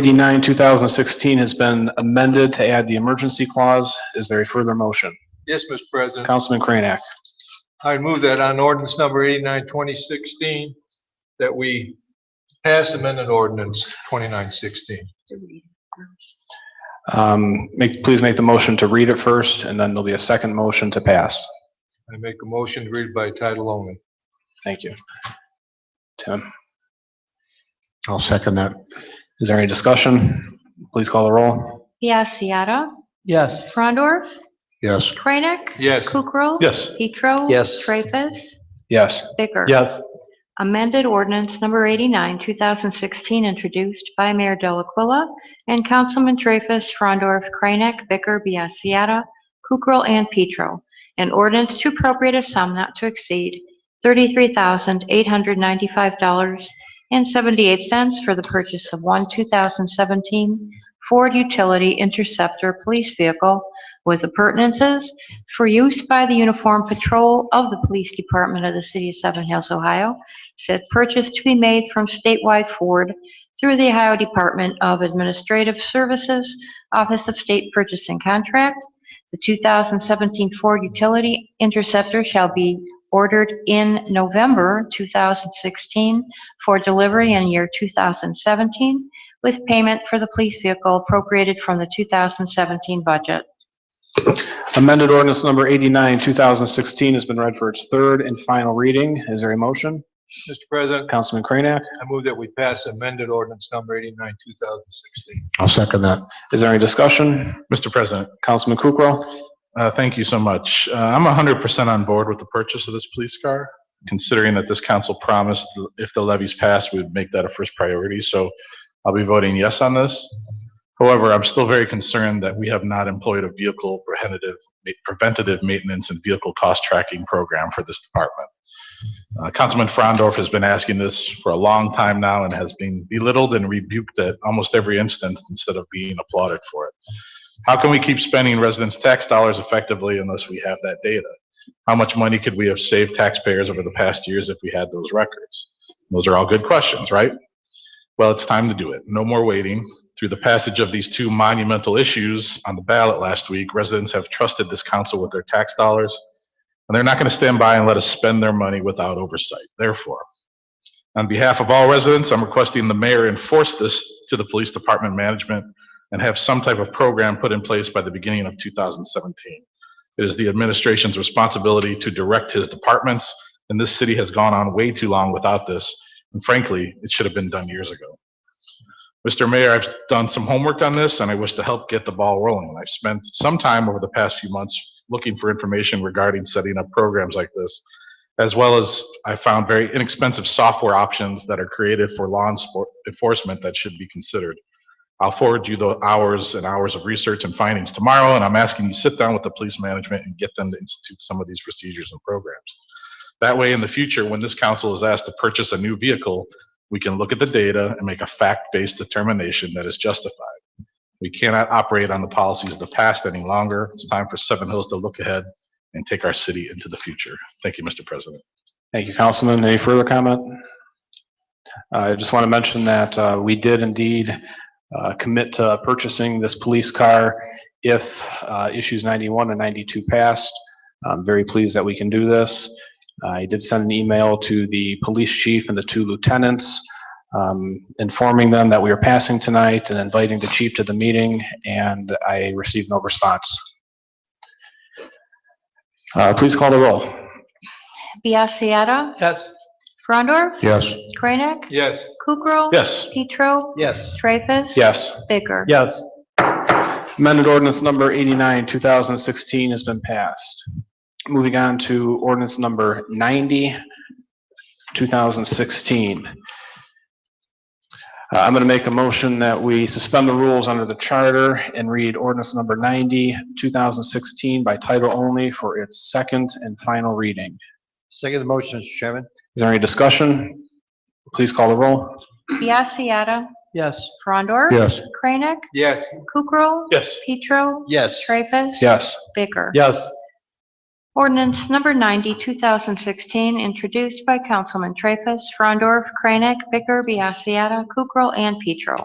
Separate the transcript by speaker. Speaker 1: 89, 2016 has been amended to add the emergency clause. Is there a further motion?
Speaker 2: Yes, Mr. President.
Speaker 1: Councilman Kranek.
Speaker 2: I move that on ordinance number 89, 2016, that we pass amended ordinance 2916.
Speaker 1: Um, Make, please make the motion to read it first, and then there'll be a second motion to pass.
Speaker 2: I make a motion to read it by title only.
Speaker 1: Thank you. Tim,
Speaker 3: I'll second that.
Speaker 1: is there any discussion? Please call the roll.
Speaker 4: Biassiata.
Speaker 5: Yes.
Speaker 4: Frondor.
Speaker 3: Yes,
Speaker 4: Kranek.
Speaker 2: Yes,
Speaker 4: Kukrow.
Speaker 1: Yes.
Speaker 4: Petro.
Speaker 5: Yes.
Speaker 4: Traffus.
Speaker 1: Yes.
Speaker 4: Bicker.
Speaker 1: Yes.
Speaker 4: Amended ordinance number 89, 2016, introduced by Mayor Delacqua and Councilman Traffus, Frondorf, Kranek, Bicker, Biassiata, Kukrow, and Petro. An ordinance to appropriate a sum not to exceed $33,895.78 for the purchase of one 2017 Ford Utility Interceptor police vehicle with appurtenances for use by the Uniform Patrol of the Police Department of the City of Seven Hills, Ohio, said purchase to be made from statewide Ford through the Ohio Department of Administrative Services, Office of State Purchasing Contract. The 2017 Ford Utility Interceptor shall be ordered in November 2016 for delivery in year 2017 with payment for the police vehicle appropriated from the 2017 budget.
Speaker 1: Amended ordinance number 89, 2016 has been read for its third and final reading. Is there a motion?
Speaker 2: Mr. President,
Speaker 1: Councilman Kranek,
Speaker 2: I move that we pass amended ordinance number 89, 2016.
Speaker 3: I'll second that.
Speaker 1: is there any discussion?
Speaker 6: Mr. President,
Speaker 1: Councilman Kukrow.
Speaker 6: uh, thank you so much. Uh, I'm 100% on board with the purchase of this police car, considering that this council promised th- if the levies passed, we would make that a first priority. So I'll be voting yes on this. However, I'm still very concerned that we have not employed a vehicle preventative, preventative maintenance and vehicle cost tracking program for this department. Uh, Councilman Frondorf has been asking this for a long time now and has been belittled and rebuked at almost every instance instead of being applauded for it. How can we keep spending residents' tax dollars effectively unless we have that data? How much money could we have saved taxpayers over the past years if we had those records? Those are all good questions, right? Well, it's time to do it. No more waiting. Through the passage of these two monumental issues on the ballot last week, residents have trusted this council with their tax dollars, and they're not going to stand by and let us spend their money without oversight. Therefore, on behalf of all residents, I'm requesting the mayor enforce this to the police department management and have some type of program put in place by the beginning of 2017. It is the administration's responsibility to direct his departments, and this city has gone on way too long without this. And frankly, it should have been done years ago. Mr. Mayor, I've done some homework on this, and I wish to help get the ball rolling. I've spent some time over the past few months looking for information regarding setting up programs like this, as well as I found very inexpensive software options that are created for law enfor- enforcement that should be considered. I'll forward you the hours and hours of research and findings tomorrow, and I'm asking you to sit down with the police management and get them to institute some of these procedures and programs. That way, in the future, when this council is asked to purchase a new vehicle, we can look at the data and make a fact-based determination that is justified. We cannot operate on the policies of the past any longer. It's time for Seven Hills to look ahead and take our city into the future. Thank you, Mr. President.
Speaker 1: Thank you, Councilman. Any further comment? Uh, I just want to mention that uh, we did indeed uh, commit to purchasing this police car if uh, issues 91 and 92 passed. I'm very pleased that we can do this. I did send an email to the police chief and the two lieutenants um, informing them that we are passing tonight and inviting the chief to the meeting, and I received no response. Uh, Please call the roll.
Speaker 4: Biassiata.
Speaker 5: Yes.
Speaker 4: Frondor.
Speaker 3: Yes,
Speaker 4: Kranek.
Speaker 2: Yes,
Speaker 4: Kukrow.
Speaker 1: Yes.
Speaker 4: Petro.
Speaker 5: Yes.
Speaker 4: Traffus.
Speaker 1: Yes.
Speaker 4: Bicker.
Speaker 1: Yes. Amended ordinance number 89, 2016 has been passed. Moving on to ordinance number 90, 2016. Uh, I'm going to make a motion that we suspend the rules under the charter and read ordinance number 90, 2016 by title only for its second and final reading.
Speaker 5: Second motion, Mr. Chairman.
Speaker 1: Is there any discussion? Please call the roll.
Speaker 4: Biassiata.
Speaker 5: Yes.
Speaker 4: Frondor.
Speaker 3: yes,
Speaker 4: Kranek.
Speaker 2: yes,
Speaker 4: Kukrow.
Speaker 1: Yes.
Speaker 4: Petro.
Speaker 5: Yes.
Speaker 4: Traffus.
Speaker 1: Yes.
Speaker 4: Bicker.
Speaker 5: Yes.
Speaker 4: Ordinance number 90, 2016, introduced by Councilman Traffus, Frondorf, Kranek, Bicker, Biassiata, Kukrow, and Petro.